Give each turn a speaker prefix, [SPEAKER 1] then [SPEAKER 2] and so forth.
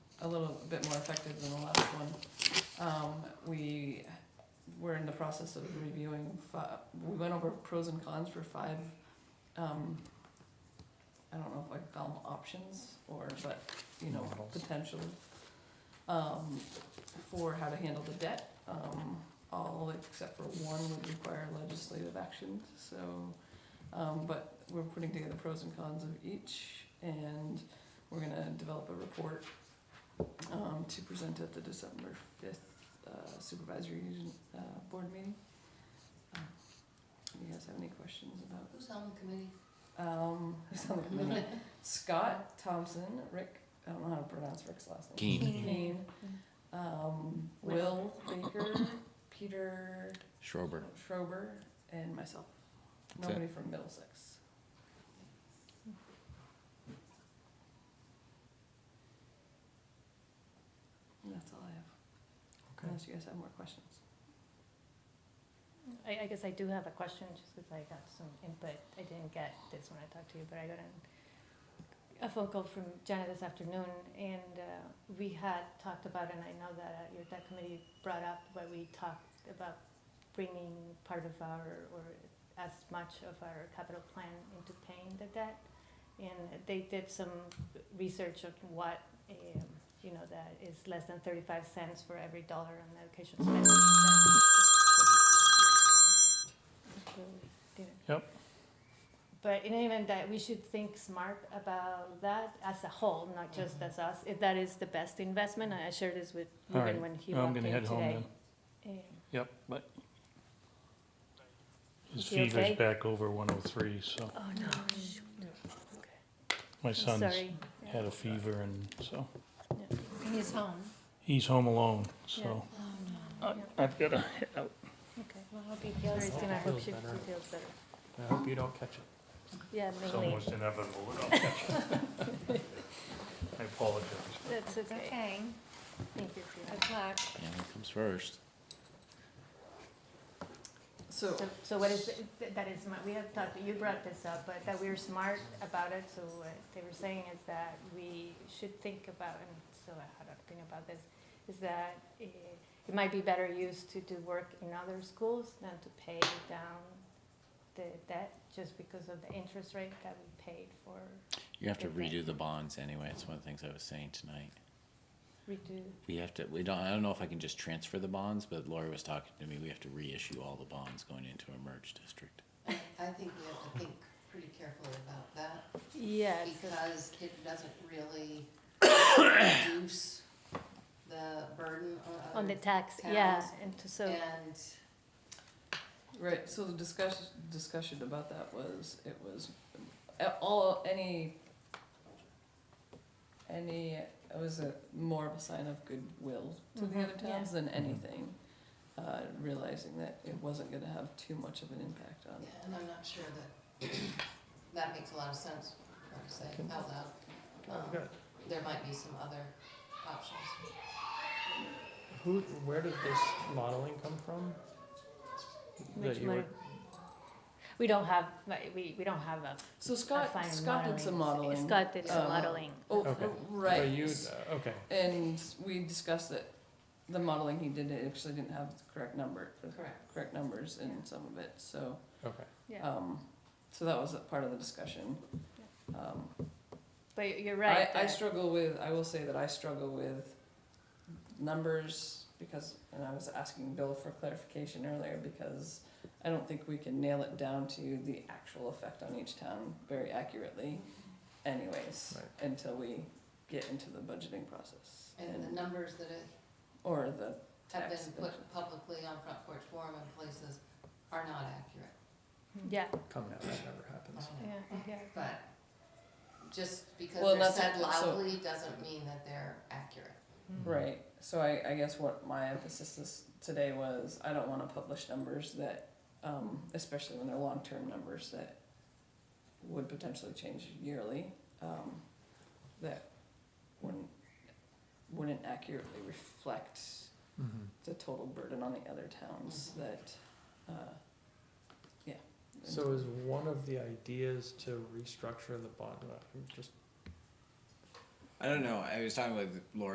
[SPEAKER 1] bit more effective than the last one. Um, we were in the process of reviewing fi- we went over pros and cons for five, um, I don't know if I could call them options or, but, you know,
[SPEAKER 2] Models.
[SPEAKER 1] potential. Um, for how to handle the debt, um, all except for one would require legislative action, so, um, but we're putting together pros and cons of each, and we're gonna develop a report, um, to present at the December fifth uh, supervisory, uh, board meeting. Um, You guys have any questions about,
[SPEAKER 3] Who's on the committee?
[SPEAKER 1] um, who's on the committee? Scott Thompson, Rick, I don't know how to pronounce Rick's last name.
[SPEAKER 2] Keen,
[SPEAKER 1] Kane, um, Will Baker, Peter
[SPEAKER 2] Schrober.
[SPEAKER 1] Schrober, and myself.
[SPEAKER 2] That's it.
[SPEAKER 1] Nobody from Middlesex. And That's all I have,
[SPEAKER 2] Okay.
[SPEAKER 1] unless you guys have more questions.
[SPEAKER 4] I, I guess I do have a question, just because I got some input I didn't get this when I talked to you, but I got an, a phone call from Jenna this afternoon, and, uh, we had talked about, and I know that uh, your, that committee brought up, where we talked about bringing part of our, or as much of our capital plan into paying the debt. And they did some research of what, um, you know, that is less than thirty-five cents for every dollar on education spending. That-
[SPEAKER 2] Yep.
[SPEAKER 4] But in any event, that we should think smart about that as a whole, not just
[SPEAKER 2] Mm-hmm.
[SPEAKER 4] as us. If that is the best investment, I I shared this with
[SPEAKER 2] All
[SPEAKER 4] Ruben
[SPEAKER 2] right.
[SPEAKER 4] when he
[SPEAKER 2] I'm
[SPEAKER 4] walked in
[SPEAKER 2] gonna
[SPEAKER 4] today.
[SPEAKER 2] head home then.
[SPEAKER 4] Um,
[SPEAKER 2] Yep, but his
[SPEAKER 4] Is he okay?
[SPEAKER 2] fever's back over one oh three, so
[SPEAKER 4] Oh, no, shoot.
[SPEAKER 2] my
[SPEAKER 4] I'm
[SPEAKER 2] son's
[SPEAKER 4] sorry.
[SPEAKER 2] had a fever and so,
[SPEAKER 3] He's home.
[SPEAKER 2] he's home alone, so.
[SPEAKER 3] Oh, no.
[SPEAKER 2] I- I've gotta head out.
[SPEAKER 4] Okay.
[SPEAKER 3] Well, I hope he
[SPEAKER 4] Sorry,
[SPEAKER 3] feels
[SPEAKER 4] Christina, I
[SPEAKER 3] better.
[SPEAKER 4] hope she she feels better.
[SPEAKER 5] I hope you don't catch it.
[SPEAKER 4] Yeah,
[SPEAKER 2] It's
[SPEAKER 4] mainly.
[SPEAKER 2] almost inevitable, but I'll catch it. I apologize.
[SPEAKER 4] That's
[SPEAKER 3] It's
[SPEAKER 4] okay.
[SPEAKER 3] okay,
[SPEAKER 4] Thank you, Christina.
[SPEAKER 3] good luck.
[SPEAKER 5] Family comes first.
[SPEAKER 1] So,
[SPEAKER 4] So, so what is, th- that is, my- we have talked, you brought this up, but that we're smart about it, so what they were saying is that we should think about, and so I had to think about this, is that eh, it might be better used to do work in other schools than to pay down the debt, just because of the interest rate that we paid for
[SPEAKER 5] You have to
[SPEAKER 4] Okay.
[SPEAKER 5] redo the bonds anyway. It's one of the things I was saying tonight.
[SPEAKER 4] redo.
[SPEAKER 5] We have to, we don't, I don't know if I can just transfer the bonds, but Laura was talking to me, we have to reissue all the bonds going into a merged district.
[SPEAKER 6] I I think you have to think pretty carefully about that,
[SPEAKER 4] Yeah,
[SPEAKER 6] because it doesn't really reduce the burden on
[SPEAKER 4] on the
[SPEAKER 6] other.
[SPEAKER 4] tax, yeah,
[SPEAKER 6] towns
[SPEAKER 4] and to, so.
[SPEAKER 6] And
[SPEAKER 1] right, so the discussion, discussion about that was, it was, uh, all, any, any, it was a, more of a sign of goodwill to the
[SPEAKER 4] Mhm,
[SPEAKER 1] other towns
[SPEAKER 4] yeah.
[SPEAKER 1] than
[SPEAKER 7] Mm-hmm.
[SPEAKER 1] anything. Uh, realizing that it wasn't gonna have too much of an impact on,
[SPEAKER 6] yeah, and I'm not sure that, that makes a lot of sense, like I say, out loud. Um, There might be some other options.
[SPEAKER 7] Who, where did this modeling come from?
[SPEAKER 4] Which
[SPEAKER 7] That you were,
[SPEAKER 4] model? We don't have, like, we, we don't have a
[SPEAKER 1] so Scott,
[SPEAKER 4] fine
[SPEAKER 1] Scott did some modeling.
[SPEAKER 4] Scott did some
[SPEAKER 1] uh,
[SPEAKER 4] modeling.
[SPEAKER 1] Oh,
[SPEAKER 7] Okay.
[SPEAKER 1] right.
[SPEAKER 7] but you, uh, okay,
[SPEAKER 1] And we discussed that the modeling he did it actually didn't have the correct number, the
[SPEAKER 6] Correct.
[SPEAKER 1] correct numbers in some of it, so,
[SPEAKER 7] okay.
[SPEAKER 4] Yeah,
[SPEAKER 1] um, so that was a part of the discussion. Um,
[SPEAKER 4] but you- you're right.
[SPEAKER 1] I, I
[SPEAKER 4] that-
[SPEAKER 1] struggle with, I will say that I struggle with numbers because, and I was asking Bill for clarification earlier because I don't think we can nail it down to the actual effect on each town very accurately anyways,
[SPEAKER 7] Right.
[SPEAKER 1] until we get into the budgeting process.
[SPEAKER 6] And the numbers that it-
[SPEAKER 1] Or the
[SPEAKER 6] have
[SPEAKER 1] Tax
[SPEAKER 6] been
[SPEAKER 1] budget.
[SPEAKER 6] put publicly on Front Porch Forum and places are not accurate.
[SPEAKER 4] Yeah,
[SPEAKER 7] Come now, that never happens.
[SPEAKER 6] I know.
[SPEAKER 4] yeah, yeah.
[SPEAKER 6] But just because
[SPEAKER 1] Well,
[SPEAKER 6] they're
[SPEAKER 1] that's-
[SPEAKER 6] said
[SPEAKER 1] so-
[SPEAKER 6] loudly doesn't mean that they're accurate.
[SPEAKER 1] Right, so I, I guess what my emphasis this, today was, I don't wanna publish numbers that, um, especially when they're long-term numbers that would potentially change yearly, um, that wouldn't, wouldn't accurately reflect
[SPEAKER 7] Mhm.
[SPEAKER 1] the total burden on the other towns that, uh, yeah.
[SPEAKER 7] So is one of the ideas to restructure the bond, I'm uh, just
[SPEAKER 5] I don't know, I was talking with Laura